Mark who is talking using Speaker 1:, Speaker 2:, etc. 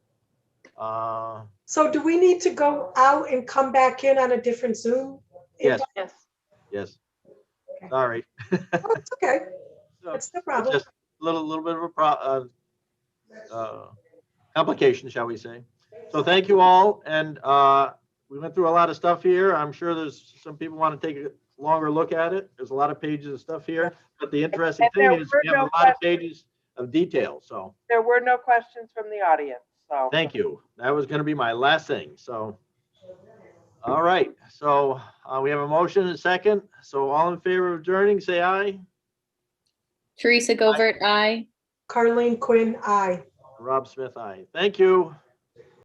Speaker 1: Uh,
Speaker 2: So do we need to go out and come back in on a different Zoom?
Speaker 1: Yes.
Speaker 3: Yes.
Speaker 1: yes.
Speaker 2: Okay.
Speaker 1: Sorry.
Speaker 2: Oh, It's okay,
Speaker 1: So,
Speaker 2: that's no
Speaker 1: it's
Speaker 2: problem.
Speaker 1: Just a little, little bit of a pro, uh, uh, complication, shall we say. So thank you all, and, uh, we went through a lot of stuff here. I'm sure there's, some people want to take a longer look at it. There's a lot of pages of stuff here, but the interesting
Speaker 4: And there
Speaker 1: thing is we
Speaker 4: were
Speaker 1: have a
Speaker 4: no
Speaker 1: lot of pages of detail, so,
Speaker 4: There were no questions from the audience, so.
Speaker 1: thank you. That was gonna be my last thing, so. All right, so, uh, we have a motion and a second, so all in favor of adjourning, say aye.
Speaker 5: Teresa Govert, aye.
Speaker 2: Carleen Quinn, aye.
Speaker 1: Rob Smith, aye. Thank you.